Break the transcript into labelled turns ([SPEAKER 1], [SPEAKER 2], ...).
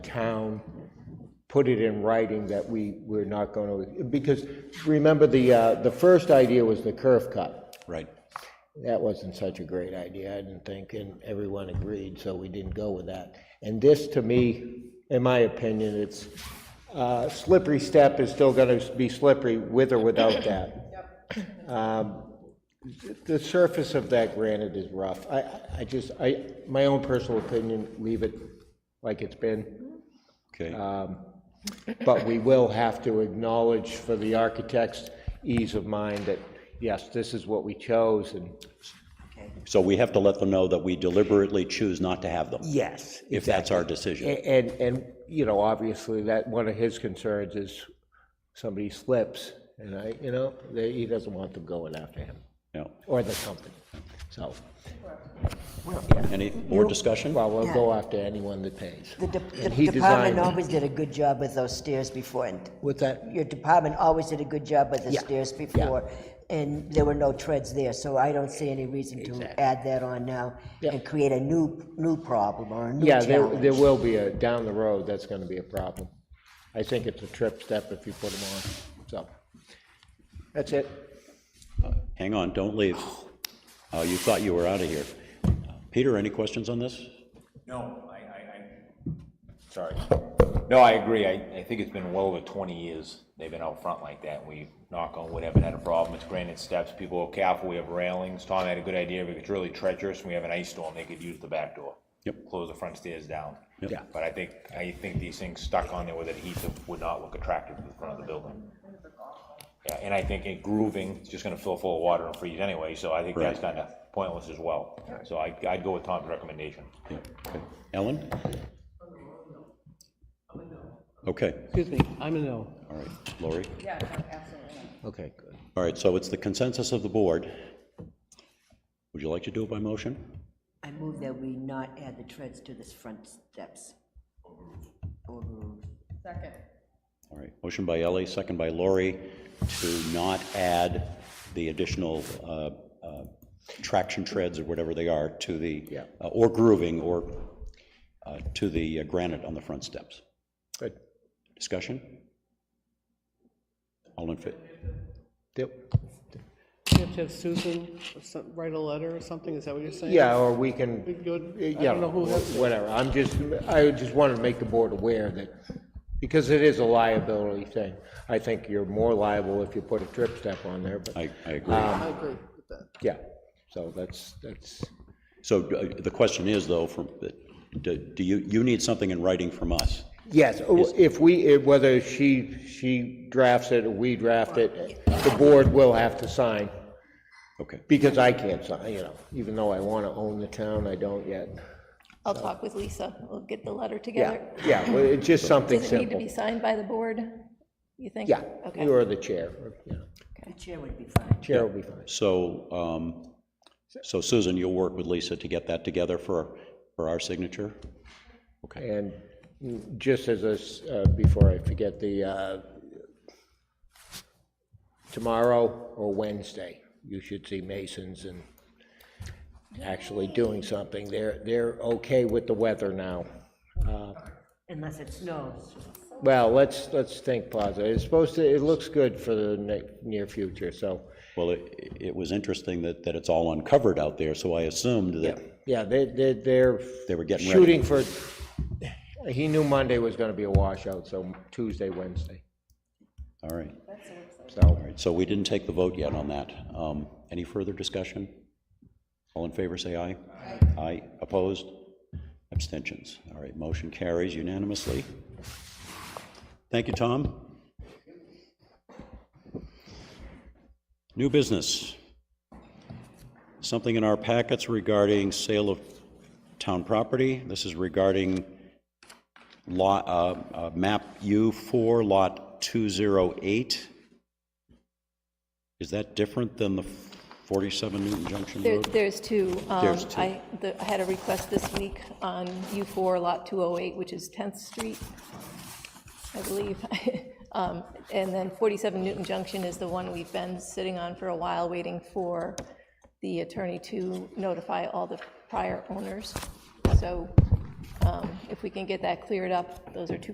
[SPEAKER 1] town put it in writing that we, we're not going to, because remember the, uh, the first idea was the curve cut.
[SPEAKER 2] Right.
[SPEAKER 1] That wasn't such a great idea, I didn't think, and everyone agreed, so we didn't go with that. And this, to me, in my opinion, it's, uh, slippery step is still going to be slippery with or without that. Um, The surface of that granite is rough. I, I- I just, I, my own personal opinion, leave it like it's been.
[SPEAKER 2] Okay.
[SPEAKER 1] But we will have to acknowledge for the architect's ease of mind that, yes, this is what we chose and.
[SPEAKER 2] So we have to let them know that we deliberately choose not to have them,
[SPEAKER 1] Yes.
[SPEAKER 2] if that's our decision.
[SPEAKER 1] And, and, you know, obviously that, one of his concerns is somebody slips and I, you know, they- he doesn't want them going after him
[SPEAKER 2] No.
[SPEAKER 1] or the company. So,
[SPEAKER 2] Any more discussion?
[SPEAKER 1] well, we'll go after anyone that pays.
[SPEAKER 3] The de-
[SPEAKER 1] And
[SPEAKER 3] the
[SPEAKER 1] he
[SPEAKER 3] department
[SPEAKER 1] designed,
[SPEAKER 3] always did a good job with those stairs before, and
[SPEAKER 1] what's that?
[SPEAKER 3] your department always did a good job with the
[SPEAKER 1] Yeah,
[SPEAKER 3] stairs before, and there were no treads there, so I don't see any reason to add that on now
[SPEAKER 1] Yeah.
[SPEAKER 3] and create a new, new problem or a new
[SPEAKER 1] Yeah, there,
[SPEAKER 3] challenge.
[SPEAKER 1] there will be a, down the road, that's gonna be a problem. I think it's a trip step if you put them on, so. That's it.
[SPEAKER 2] Hang on, don't leave. Oh, you thought you were out of here. Peter, any questions on this?
[SPEAKER 4] No, I, I, I, sorry. No, I agree. I, I think it's been well over twenty years they've been out front like that. We knock on wood, haven't had a problem. It's granite steps. People are careful. We have railings. Tom had a good idea, but it's really treacherous. and We have an ice storm. They could use the back door.
[SPEAKER 2] Yep.
[SPEAKER 4] Close the front stairs down.
[SPEAKER 2] Yep.
[SPEAKER 1] Yeah.
[SPEAKER 4] But I think, I think these things stuck on there with adhesive would not look attractive to the front of the building. Yeah, and I think it grooving, it's just gonna fill full of water and freeze anyway, so I think that's
[SPEAKER 2] Right.
[SPEAKER 4] kinda pointless as well. So I, I'd go with Tom's recommendation.
[SPEAKER 2] Yeah, okay. Ellen? Okay,
[SPEAKER 5] Excuse me, I'm a no.
[SPEAKER 2] all right. Lori?
[SPEAKER 1] Okay, good.
[SPEAKER 2] All right, so it's the consensus of the board. Would you like to do it by motion?
[SPEAKER 3] I move that we not add the treads to this front steps. Overruled.
[SPEAKER 6] Second.
[SPEAKER 2] All right, motion by Ellie, second by Lori, to not add the additional uh, uh, traction treads or whatever they are to the, uh, or grooving, or uh, to the uh, granite on the front steps.
[SPEAKER 1] Good.
[SPEAKER 2] Discussion? All in favor?
[SPEAKER 1] Yep.
[SPEAKER 5] You have to have Susan or some- write a letter or something, is that what you're saying?
[SPEAKER 1] Yeah, or we can,
[SPEAKER 5] We could-
[SPEAKER 1] yeah,
[SPEAKER 5] I don't know who has to.
[SPEAKER 1] whatever. I'm just, I just wanted to make the board aware that, because it is a liability thing. I think you're more liable if you put a trip step on there, but,
[SPEAKER 2] I, I agree.
[SPEAKER 5] I agree with that.
[SPEAKER 1] yeah. So that's, that's,
[SPEAKER 2] So uh, the question is, though, from, do do you, you need something in writing from us?
[SPEAKER 1] Yes, if we, eh, whether she, she drafts it or we draft it, the board will have to sign,
[SPEAKER 2] Okay,
[SPEAKER 1] because I can't sign, you know, even though I want to own the town, I don't yet.
[SPEAKER 6] I'll talk with Lisa. We'll get the letter
[SPEAKER 1] Yeah,
[SPEAKER 6] together.
[SPEAKER 1] yeah, well, it's just something
[SPEAKER 6] Does it need to be
[SPEAKER 1] simple.
[SPEAKER 6] signed by the board, you think?
[SPEAKER 1] Yeah,
[SPEAKER 6] Okay.
[SPEAKER 1] you are the chair, you know,
[SPEAKER 3] The chair would be fine.
[SPEAKER 1] chair will be fine.
[SPEAKER 2] so, um, so Susan, you'll work with Lisa to get that together for, for our signature?
[SPEAKER 1] And just as a s uh, before I forget, the, uh, tomorrow or Wednesday, you should see Masons and actually doing something. They're, they're okay with the weather now. Uh,
[SPEAKER 3] Unless it snows.
[SPEAKER 1] Well, let's, let's think positive. It's supposed to, it looks good for the ne- near future, so,
[SPEAKER 2] Well, it, it was interesting that, that it's all uncovered out there, so I assumed that,
[SPEAKER 1] yeah, they, they, they're.
[SPEAKER 2] They were getting ready.
[SPEAKER 1] Shooting for, he knew Monday was gonna be a washout, so Tuesday, Wednesday,
[SPEAKER 2] all right.
[SPEAKER 1] so.
[SPEAKER 2] All right, so we didn't take the vote yet on that. Um, Any further discussion? All in favor, say aye. Aye. Aye, opposed? Abstentions. All right, motion carries unanimously. Thank you, Tom. New business. Something in our packets regarding sale of town property. This is regarding lot, uh, uh, map U4, lot 208. Is that different than the 47 Newton Junction
[SPEAKER 6] There-
[SPEAKER 2] Road?
[SPEAKER 6] There's two. Um,
[SPEAKER 2] There's two.
[SPEAKER 6] I the- I had a request this week on U4 Lot 208, which is 10th Street, I believe. Um, And then 47 Newton Junction is the one we've been sitting on for a while, waiting for the attorney to notify all the prior owners. So Um, If we can get that cleared up, those are two